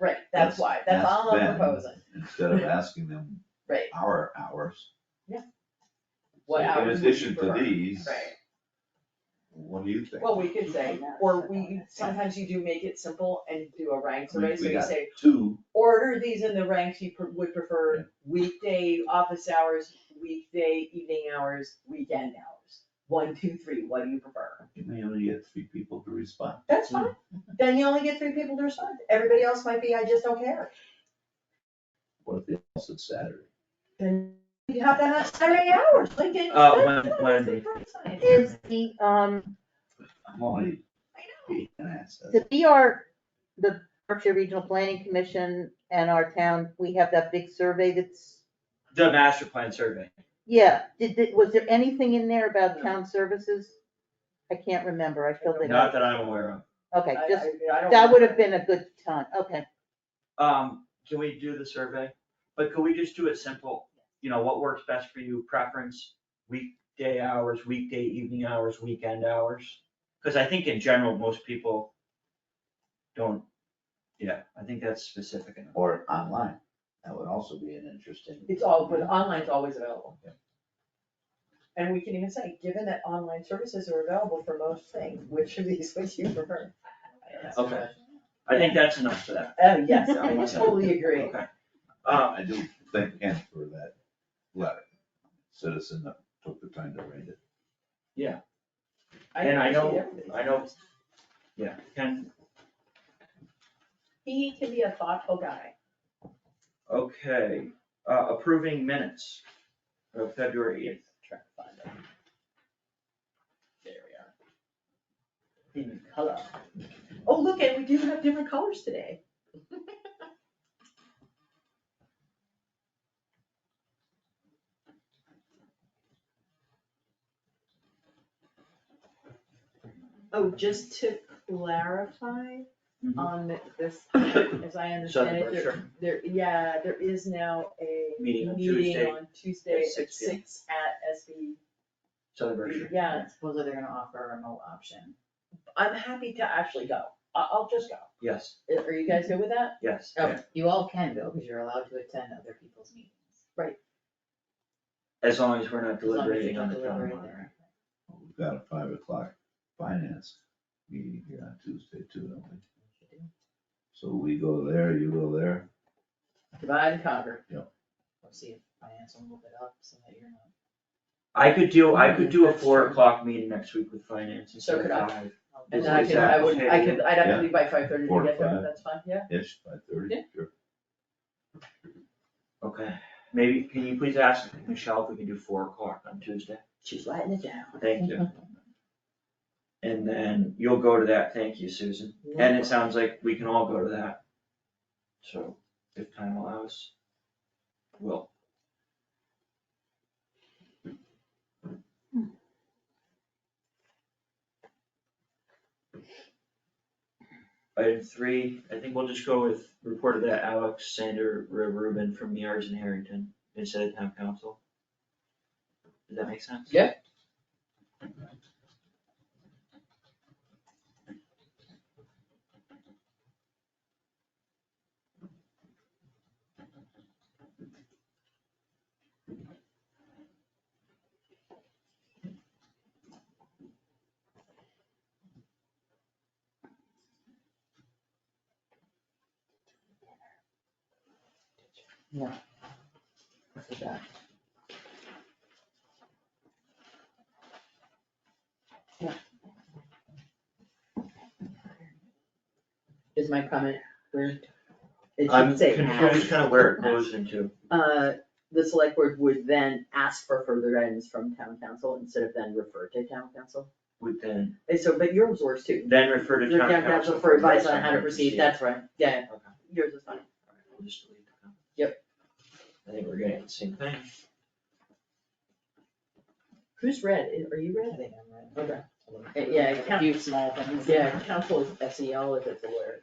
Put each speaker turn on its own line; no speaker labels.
That's
That's-
why, that's all I'm
that's them.
proposing.
instead of asking them
Right.
our hours.
What
So
hours would
In
you
addition to
prefer?
these.
Right.
What do you think?
Well, we could say, or we,
Yeah.
sometimes you do make it simple and do a rank
We-
survey, so
we
you
got
say,
Two,
order these in the ranks you pre- would
Yeah.
prefer, weekday office hours, weekday evening hours, weekend hours. One, two, three, what do you prefer?
you may only get three people to respond.
That's fine, then you only get three people to respond, everybody else might be, I just don't care.
What if they also it's Saturday?
Then you have to have Saturday hours, Lincoln.
Uh,
Oh,
Wed- Wednesday.
Is the, um,
Molly,
I know,
you can ask that.
the BR, the Berkshire Regional Planning Commission and our town, we have that big survey that's,
The master plan survey.
yeah, did, did- was there anything in there about
No.
town services? I can't remember, I filled it
Not
out.
that I'm aware of.
Okay,
I-
just,
I- I don't-
that would have been a good time, okay.
Um, can we do the survey? But could we just do it simple? You know, what works best for you, preference, weekday hours, weekday evening hours, weekend hours? Cause I think in general, most people don't, yeah, I think that's specific enough.
Or online, that would also be an interesting.
It's all, but online's always available.
Yeah.
And we can even say, given that online services are available for most things, which of these would you prefer?
Okay. I think that's enough for that.
Oh, yes, I totally agree.
Okay.
Uh,
Um,
I do thank Ken for that letter, citizen that took the time to write it.
And I know-
appreciate everybody's
I know-
efforts.
yeah, Ken,
He can be a thoughtful guy.
okay, uh, approving minutes of February eighth.
Try to find it. There we are. In color. Oh, look, and we do have different colors today.
Oh, just to clarify
Mhm.
Um,
on this, as I understand
Southern
it, there,
Berkshire.
there, yeah, there is now a
Meeting on
meeting
Tuesday
on Tuesday
at
at
6 p.m.
six at SB.
Southern Berkshire.
Yeah, supposedly they're gonna offer a remote option.
I'm happy to actually go. I, I'll just go.
Yes,
Are- Are you guys good with that?
yes.
Okay.
You all can go, because you're allowed to attend other people's meetings.
As long as we're not
as long as you're
deliberating
not
on the town
deliberating.
warrant.
We've got a five o'clock finance meeting here on Tuesday too, don't we? So we go there, you go there,
Divide and conquer.
Or see if finance will move it up, so that you're not.
I could do, I could do a
That's
four
true.
o'clock meeting next week with finance instead
So
of
could I.
five.
And then I
Is
could, I
that
would, I
okay?
could, I'd have
Yeah.
to leave by five thirty
Four
to
to
get there,
five.
that's fine, yeah?
ish, by thirty,
Yeah.
sure.
Okay, maybe, can you please ask Michelle if we can do four o'clock on Tuesday?
She's letting it down.
Thank you. And then you'll go to that, thank you, Susan. And it sounds like we can all go to that. So if time allows, we'll. Item three, I think we'll just go with report of that Alex Sander Rubin from Yards and Harrington instead of town council. Does that make sense?
Yeah.
Is my comment weird?
It
I'm
should say
confused
ask,
kind of where it goes into.
uh, the select board would then ask for further guidance from town council instead of then refer to town council.
Would then,
And so, but yours works too.
then refer to
Your
town council.
for advice on how to proceed, that's right, yeah,
Okay. Alright,
yours is fine.
we'll just delete the comment. I think we're getting the same thing.
Who's red, I- are you
I
red?
think I'm right.
Uh, yeah, it
A
count-
few small things.
Yeah, council is S E L if it's a word.